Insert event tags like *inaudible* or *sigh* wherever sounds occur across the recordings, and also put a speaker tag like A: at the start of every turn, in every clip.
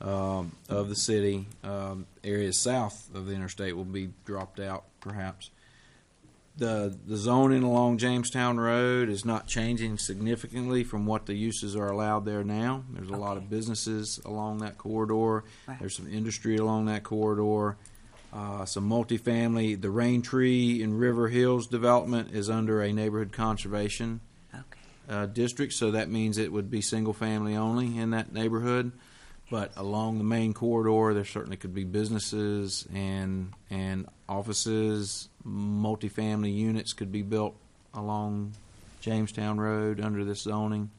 A: um, of the city. Um, areas south of the interstate will be dropped out, perhaps. The, the zoning along Jamestown Road is not changing significantly from what the uses are allowed there now. There's a lot of
B: Okay.
A: businesses along that corridor.
B: Right.
A: There's some industry along that corridor, uh, some multifamily. The Rain Tree and River Hills development is under a neighborhood conservation
B: Okay.
A: uh, district, so that means it would be single family only in that neighborhood. But along the main corridor, there certainly could be businesses and and offices, multifamily units could be built along Jamestown Road under this zoning.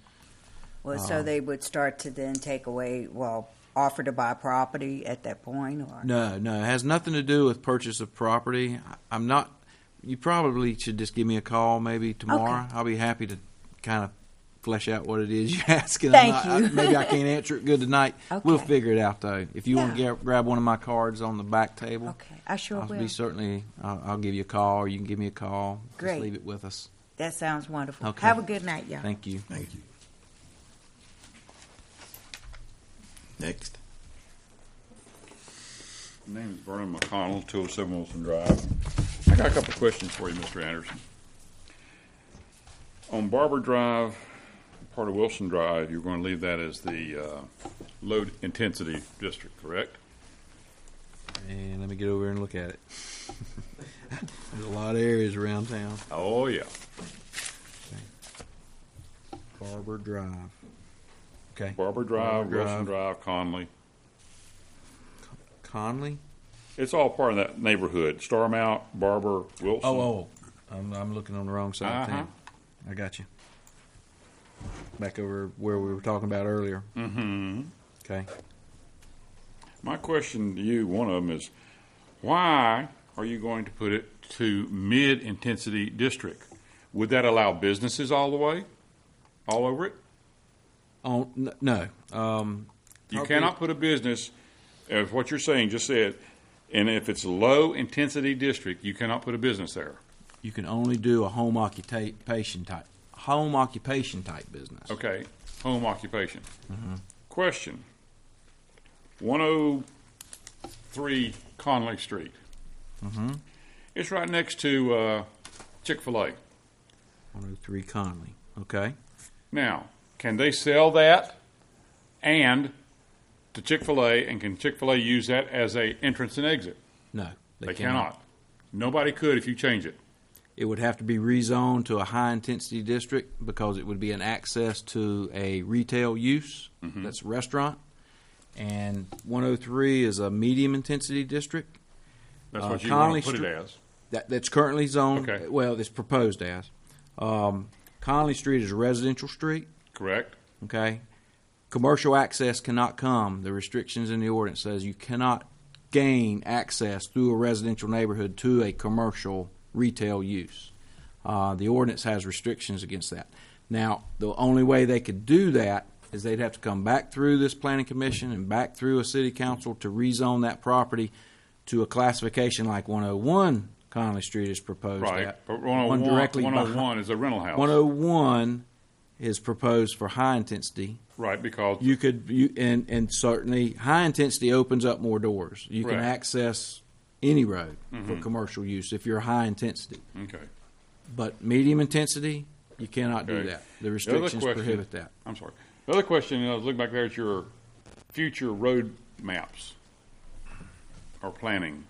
B: Well, so
A: Um,
B: they would start to then take away, well, offer to buy property at that point, or
A: No, no, it has nothing to do with purchase of property. I- I'm not. You probably should just give me a call maybe tomorrow. I'll be happy to kind of flesh out what it is *laughs* you're asking. I'm
B: Thank
A: not-
B: you. *laughs*
A: I, maybe I can't answer it good tonight. We'll
B: Okay.
A: figure it out though. If you want to
B: Yeah.
A: grab one of my cards on the back table,
B: Okay, I sure
A: I'll
B: will.
A: be certainly. I'll, I'll give you a call, or you can give me a call.
B: Great.
A: Just leave it with us.
B: That sounds wonderful.
A: Okay.
B: Have a good night, y'all.
A: Thank you.
C: Thank you. Next.
D: My name is Vernon McConnell, 207 Wilson Drive. I got a couple of questions for you, Mr. Anderson. On Barber Drive, part of Wilson Drive, you're going to leave that as the uh, low intensity district, correct?
A: And let me get over and look at it. *laughs* There's a lot of areas around town.
D: Oh, yeah.
A: Barber Drive. Okay.
D: Barber Drive,
A: Barber
D: Wilson Drive, Conley.
A: Conley.
D: It's all part of that neighborhood. Starmount, Barber, Wilson.
A: Oh, oh, I'm, I'm looking on the wrong side. of
D: Uh-huh.
A: town. I got you. Back over where we were talking about earlier. Mm-hmm. Okay.
D: My question to you, one of them is, why are you going to put it to mid-intensity district? Would that allow businesses all the way, all over it?
A: Oh n- no. Um,
D: You
A: Okay.
D: cannot put a business, as what you're saying just said, and if it's a low-intensity district, you cannot put a business there.
A: you can only do a home occupation type, home occupation type business.
D: Okay, home occupation. Question. 103 Conley Street. It's right next to uh, Chick-fil-A.
A: 103 Conley. Okay.
D: Now, can they sell that and to Chick fil A, and can Chick fil A use that as a entrance and exit?
A: No,
D: They, cannot. Nobody could if you change it.
A: It would have to be rezoned to a high intensity district because it would be an access to a retail use.
D: Mm-hmm.
A: That's restaurant. And 103 is a medium intensity district.
D: That's
A: Uh,
D: what you
A: Conley
D: want to put
A: Street-
D: it as.
A: that, that's currently zoned.
D: Okay.
A: Well, it's proposed as. Um, Conley Street is a residential street.
D: Correct?
A: Okay, commercial access cannot come. The restrictions in the ordinance says you cannot gain access through a residential neighborhood to a commercial retail use. Uh, the ordinance has restrictions against that. Now, the only way they could do that is they'd have to come back through this planning commission and back through a city council to rezone that property to a classification like 101 Conley Street is proposed
D: Right.
A: at.
D: But
A: One
D: 101,
A: directly behind- oh-
D: 101 is a rental house.
A: 101 is proposed for high intensity.
D: right, because
A: You could you and and certainly high intensity opens up more doors. You can
D: Right. Mm-hmm.
A: access any road for commercial use if you're high intensity.
D: Okay.
A: But medium intensity, you cannot do
D: Okay.
A: that. The
D: The other
A: restrictions
D: question-
A: prohibit that.
D: I'm sorry. The other question, I was looking back there at your future road maps or planning.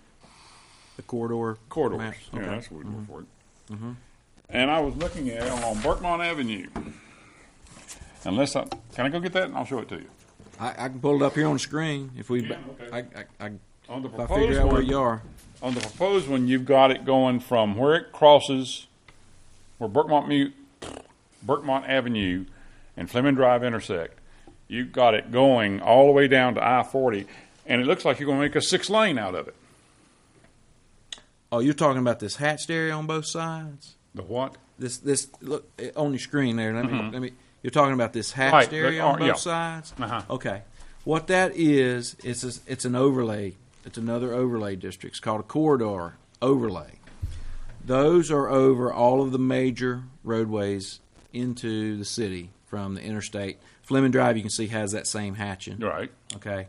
A: The corridor
D: corridors.
A: maps,
D: Yeah,
A: okay.
D: that's what we're for. Mm-hmm. And I was looking at it on Berkmont Avenue. Unless I can, I go get that and I'll show it to you.
A: I, I can pull it up here on the screen if we.
D: Yeah, okay.
A: I, I, I,
D: On the
A: if I figure
D: proposed
A: out where
D: one,
A: you are,
D: on the proposed one, you've got it going from where it crosses, where Berkmont Mute, Berkmont Avenue, and Fleming Drive intersect. You've got it going all the way down to I forty, and it looks like you're going to make a six lane out of it.
A: oh, you're talking about this hatched area on both sides.
D: The what?
A: This this look eh, on your screen there. Let me let me. You're talking about this hatched
D: Mm-hmm. Right, the-
A: area on
D: uh,
A: both
D: yeah.
A: sides.
D: Uh-huh.
A: Okay, what that is it's a, it's an overlay. It's another overlay district. It's called a corridor overlay. Those are over all of the major roadways into the city from the interstate. Fleming Drive, you can see, has that same hatching.
D: Right.
A: Okay.